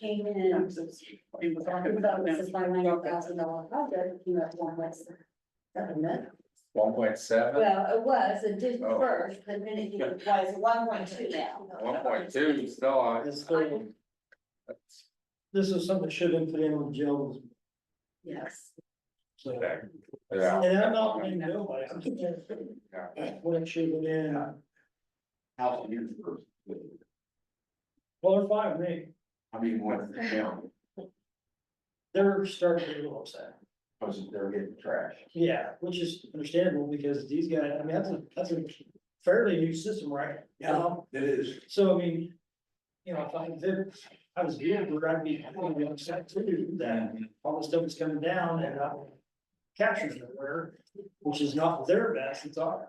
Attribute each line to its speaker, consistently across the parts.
Speaker 1: came in, talking about this is my ninety thousand dollar project, you know, one less. Government,
Speaker 2: One point seven,
Speaker 1: well, it was, it did
Speaker 2: Oh.
Speaker 1: first, but then it was one point two now.
Speaker 2: one point two, you still are.
Speaker 3: This thing, this is something that should have been put in with Jill's,
Speaker 1: Yes.
Speaker 3: so.
Speaker 2: Okay. Yeah.
Speaker 3: And I'm not being nobody, I'm just saying, when it should have been,
Speaker 4: How many years first?
Speaker 3: well, five, me,
Speaker 4: I mean, what's the count?
Speaker 3: they're starting to get a little upset.
Speaker 4: I was, they're getting trash.
Speaker 3: Yeah, which is understandable, because these guys, I mean, that's a, that's a fairly new system, right? now.
Speaker 4: It is.
Speaker 3: So, I mean, you know, if I, if I was here, I'd be, I'd be upset too, that all the stuff is coming down and uh captures the water, which is not their best, it's ours.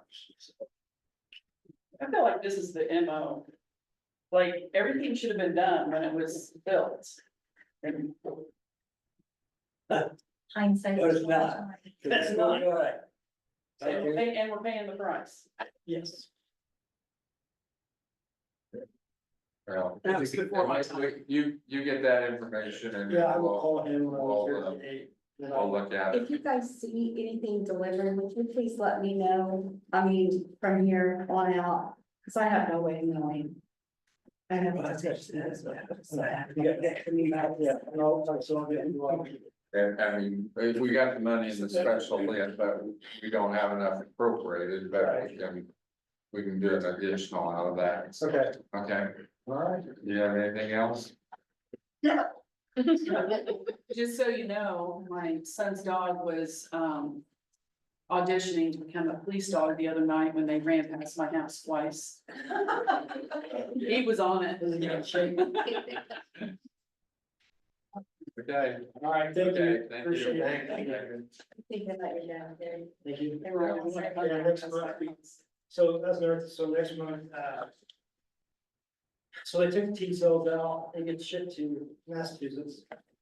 Speaker 5: I feel like this is the MO. Like, everything should have been done when it was built. And
Speaker 1: Hindsight.
Speaker 3: No, it's not. That's not right.
Speaker 5: and we're paying, and we're paying the price.
Speaker 3: Yes.
Speaker 2: Well,
Speaker 5: That was before my time.
Speaker 2: You, you get that information and
Speaker 3: Yeah, I will
Speaker 2: we'll,
Speaker 3: call him. when
Speaker 2: Well,
Speaker 3: I'm
Speaker 2: well,
Speaker 3: here today, then
Speaker 2: Oh, we'll
Speaker 3: I'll-
Speaker 2: look at
Speaker 1: If
Speaker 2: it.
Speaker 1: you guys see anything delivered, would you please let me know, I mean, from here on out, because I have no way of knowing. I have.
Speaker 3: Well, that's You got that coming back, yeah, and I'll- I'll- so I'll get you on.
Speaker 2: And, I mean, if we got the money in the special list, but we don't have enough appropriated, but we can. We can do an additional out of that,
Speaker 3: Okay.
Speaker 2: okay?
Speaker 3: All right.
Speaker 2: Do you have anything else?
Speaker 5: Just so you know, my son's dog was, um. Auditioning to become a police dog the other night when they ran past my house twice. He was on it.
Speaker 3: This is gonna change.
Speaker 2: Okay.
Speaker 3: All right, thank
Speaker 2: Okay,
Speaker 3: you.
Speaker 2: thank you.
Speaker 3: Appreciate it.
Speaker 2: Thank you.
Speaker 1: Thinking that you're down there.
Speaker 3: Thank you.
Speaker 5: They were all like,
Speaker 3: Yeah, next month. So that's another, so next month, uh. So they took T cells out, they get shipped to Massachusetts,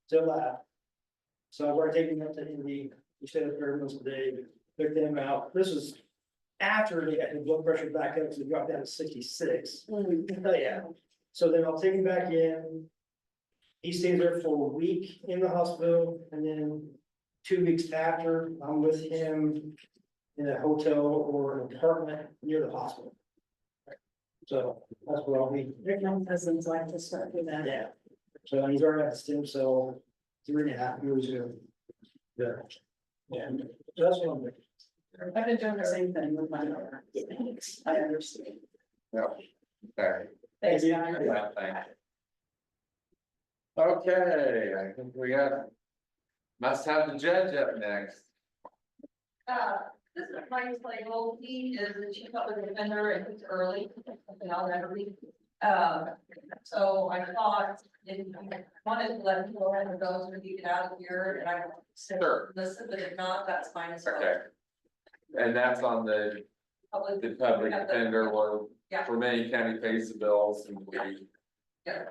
Speaker 3: to a lab. So I've already taken them to Indy, we stayed at Fairmont today, picked them out, this is. After they got the blood pressure back up, because it dropped down to sixty-six, Oh, yeah. so then I'll take him back in. He stays there for a week in the hospital, and then two weeks after, I'm with him in a hotel or an apartment near the hospital. So that's what I'll be,
Speaker 1: Rick, my cousins like to start with that.
Speaker 3: yeah. So he's already had a stem cell three and a half years ago. Yeah. Yeah, so that's what I'm doing.
Speaker 5: I've been doing the same thing with my daughter. I understand.
Speaker 2: Okay.
Speaker 5: Thanks,
Speaker 3: Thank you.
Speaker 5: guys.
Speaker 2: Yeah, thank you. Okay, I think we have. Must have the judge up next.
Speaker 6: Uh, this is Mike's play old, he is the chief public defender and he's early, and I'll never leave. Um, so I thought, if you wanted to let him go ahead and go, so you get out of here, and I will
Speaker 2: Sure.
Speaker 6: consider this, but if not, that's fine as
Speaker 2: Okay.
Speaker 6: well.
Speaker 2: And that's on the,
Speaker 6: Public,
Speaker 2: the public defender one,
Speaker 6: Yeah.
Speaker 2: for many county pays the bills and we.
Speaker 6: yeah,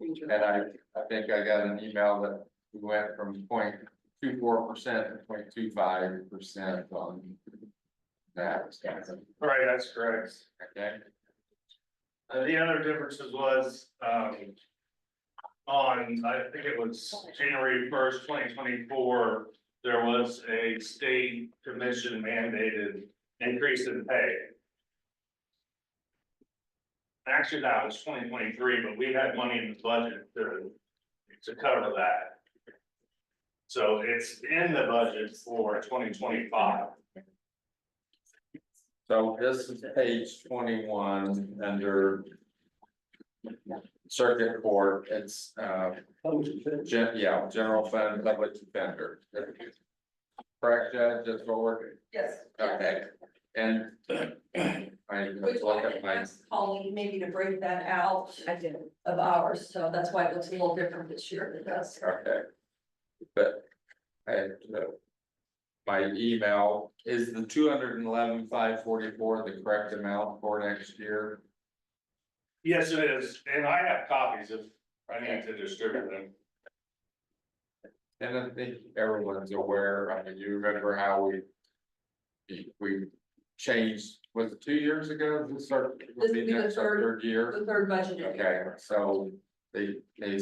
Speaker 2: And I, I think I got an email that we went from point two four percent to point two five percent on. That,
Speaker 7: Right, that's correct.
Speaker 2: okay,
Speaker 7: Uh, the other differences was, um. On, I think it was January first, twenty twenty-four, there was a state commission mandated increase in pay. Actually, that was twenty twenty-three, but we had money in the budget to, to cover that. So it's in the budget for twenty twenty-five.
Speaker 2: so this is page twenty-one under. Circuit Court, it's, uh, gen- yeah, general fund, public defender. Correct, Judge, that's what we're,
Speaker 6: yes. yes.
Speaker 2: okay, and. I
Speaker 6: Which
Speaker 2: look
Speaker 6: I
Speaker 2: at
Speaker 6: had
Speaker 2: my,
Speaker 6: asked Colleen maybe to break that out
Speaker 1: I did.
Speaker 6: of ours, so that's why it looks a little different this year, because.
Speaker 2: okay. But, I, uh, My email, is the two hundred and eleven, five forty-four the correct amount for next year?
Speaker 7: Yes, it is, and I have copies if I need to distribute them.
Speaker 2: And I think everyone's aware, I mean, you remember how we. We changed, was it two years ago, this start,
Speaker 6: This
Speaker 2: would be
Speaker 6: would be the
Speaker 2: next our
Speaker 6: third-
Speaker 2: third year?
Speaker 6: The third budget.
Speaker 2: Okay, so they, they